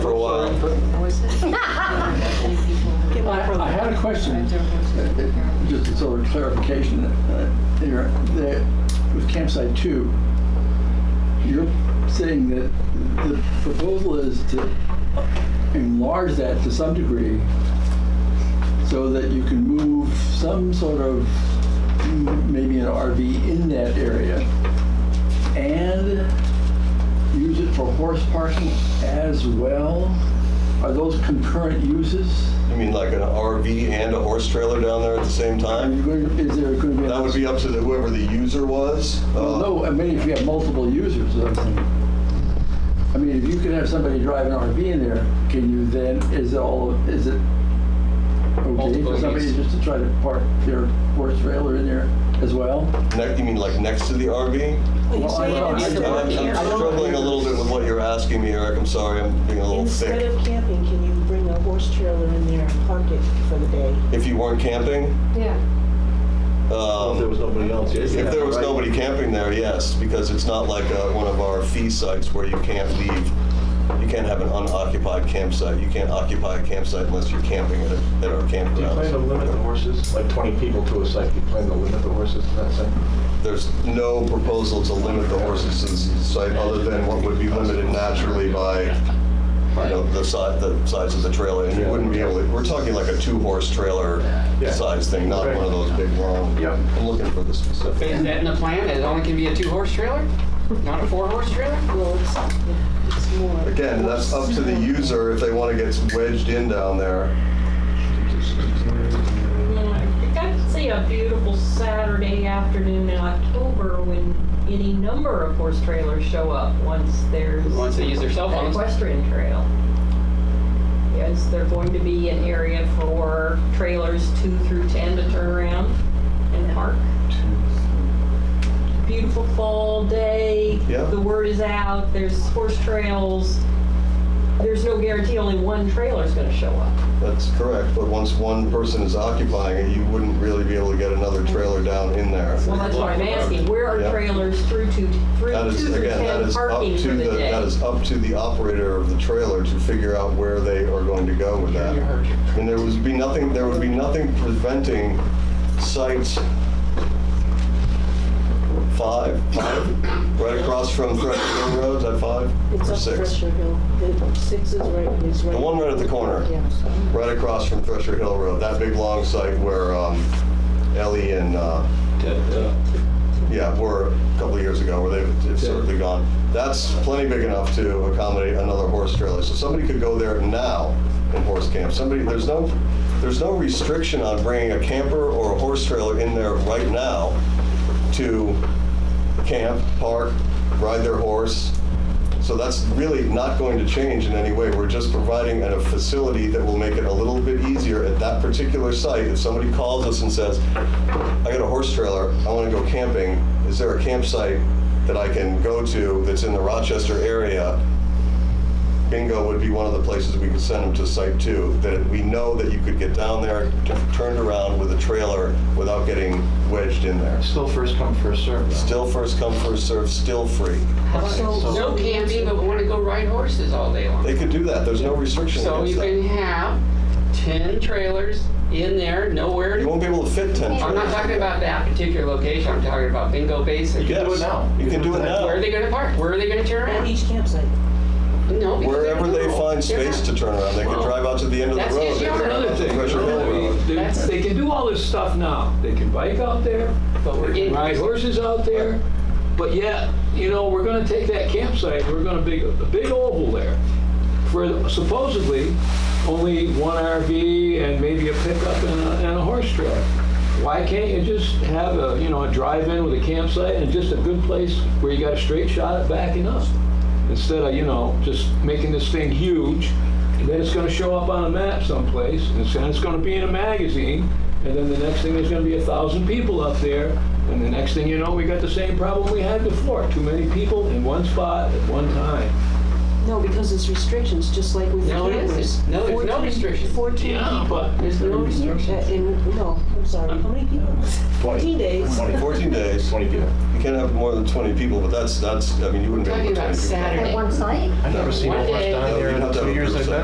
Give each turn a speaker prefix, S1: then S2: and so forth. S1: question.
S2: I do have one, too.
S1: Uh, Just a sort of clarification, uh, here, that with campsite two, you're saying that the proposal is to enlarge that to some degree so that you can move some sort of, mm, maybe an RV in that area and use it for horse parking as well? Are those concurrent uses?
S3: You mean like an RV and a horse trailer down there at the same
S1: Are you
S3: time?
S1: going, is there going to be?
S3: That would be up to the- whoever the user was.
S1: Well,
S3: Uh,
S1: no, I mean, if you have multiple users, that's- I mean, if you could have somebody drive an RV in there, can you then, is it all, is it okay
S4: Multiple
S1: for somebody
S4: use.
S1: just to try to park their horse trailer in there as well?
S3: ne- You mean like next to the RV?
S5: When you
S1: Well, I
S5: say
S3: I'm
S1: don't know.
S5: instead
S1: I-
S5: of
S1: I-
S3: I'm
S1: I don't-
S5: camping,
S3: struggling a little bit with what you're asking me, Eric. I'm sorry, I'm being a little
S5: instead
S3: thick.
S5: of camping, can you bring a horse trailer in there and park it for the day?
S3: If you weren't camping,
S2: Yeah,
S3: um,
S6: If there was nobody else, yes.
S3: If there was nobody camping there, yes, because it's not like uh, one of our fee sites where you can't leave, you can't have an unoccupied campsite, you can't occupy a campsite unless you're camping at a- at our
S6: Do you plan to limit the
S3: campgrounds.
S6: horses, like 20 people to a site, do you plan to limit the horses to that site?
S3: There's no proposal to limit the horses to the site other than what would be limited naturally by, you know, the size, the size of the trailer. And you wouldn't be able to, we're talking like a two-horse trailer
S6: Yeah.
S3: size thing, not one of those big long.
S6: Yep.
S3: I'm looking for the specific.
S4: Is that in the plan, that it only can be a two-horse trailer? Not a four-horse trailer?
S5: Well, it's, it's more.
S3: Again, that's up to the user if they want to get wedged in down there.
S7: Yeah, I could see a beautiful Saturday afternoon in October when any number of horse trailers show up once there's
S4: Once they use their cell
S7: an
S4: phones.
S7: equestrian trail. Is there going to be an area for trailers two through 10 to turn around and park? Beautiful fall day.
S3: Yeah.
S7: The word is out, there's horse trails. There's no guarantee only one trailer's gonna show up.
S3: That's correct, but once one person is occupying it, you wouldn't really be able to get another trailer down in there.
S7: Well, that's what I'm asking, where are
S3: Yeah.
S7: trailers through to, through
S3: That
S7: two
S3: is,
S7: through
S3: again, that
S7: ten
S3: is up
S7: parking
S3: to
S7: for the
S3: the,
S7: day?
S3: that is up to the operator of the trailer to figure out where they are going to go with that. And there would be nothing, there would be nothing preventing sites five, five, right across from Thresh Hill Road, is that five?
S5: It's
S3: or
S5: up
S3: six?
S5: Pressure Hill. The six is right, is right.
S3: The one right at the corner.
S5: Yeah, so.
S3: Right across from Thresher Hill Road, that big long site where um, Ellie and, uh, yeah, were a couple of years ago, where they've they've certainly gone. That's plenty big enough to accommodate another horse trailer. So somebody could go there now and horse camp. Somebody, there's no, there's no restriction on bringing a camper or a horse trailer in there right now to camp, park, ride their horse. So that's really not going to change in any way. We're just providing a facility that will make it a little bit easier at that particular site. If somebody calls us and says, I got a horse trailer, I want to go camping, is there a campsite that I can go to that's in the Rochester area? Bingo would be one of the places we could send them to site two, that we know that you could get down there, t- turned around with a trailer without getting wedged in there.
S6: Still first come, first served. though.
S3: Still first come, first serve, still free.
S5: So-
S4: No camping, but want to go ride horses all day long.
S3: They could do that, there's no restriction
S4: So
S3: against
S4: you can
S3: that.
S4: have 10 trailers in there, nowhere.
S3: You
S4: to-
S3: won't be able to fit 10
S4: I'm not
S3: trailers.
S4: talking about that particular location, I'm talking about Bingo Basin.
S6: You can do
S3: Yes.
S6: it now.
S3: You can do it now.
S4: Where are they going to park? Where are they going to turn
S5: At
S4: around?
S5: each campsite.
S4: No, because
S3: Wherever they
S4: don't.
S3: find
S4: They're
S3: space
S4: not-
S3: to turn around, they could
S4: Well,
S3: drive out to the end of the
S4: that's
S3: road.
S4: just
S3: they could
S4: yet
S3: turn
S4: another
S3: out to
S4: thing.
S3: Thresher Hill Road.
S8: They-
S4: That's-
S8: They can do all this stuff now. They can bike out there,
S4: But we're
S8: they
S4: getting.
S8: can ride horses out there. But yet, you know, we're gonna take that campsite, we're gonna big, a big oval there for supposedly only one RV and maybe a pickup and a, and a horse trailer. Why can't you just have a, you know, a drive-in with a campsite and just a good place where you got a straight shot at backing up? Instead of, you know, just making this thing huge, and then it's gonna show up on a map someplace, and it's, and it's gonna be in a magazine, and then the next thing, there's gonna be a thousand people up there, and the next thing you know, we got the same problem we had before, too many people in one spot at one time.
S5: No, because it's restrictions, just like with the
S4: No, it
S5: campers.
S4: isn't. No, there's no
S5: 14
S4: restriction.
S5: Fourteen
S8: Yeah,
S5: people.
S8: but
S4: There's no restriction.
S5: Uh, in- no, I'm sorry, how many people? 14 days.
S3: 14 days, you
S6: 20 people.
S3: can't have more than 20 people, but that's, that's, I mean, you wouldn't be
S4: Talking
S3: able to
S4: about
S3: put 20 people.
S4: Saturday.
S2: at one site?
S6: I've never seen a
S4: One
S6: horse
S4: day-
S6: down
S3: No,
S6: there
S3: you'd have
S6: in
S3: to have
S6: the two
S3: a
S6: years
S3: group
S6: I've
S3: site.
S6: been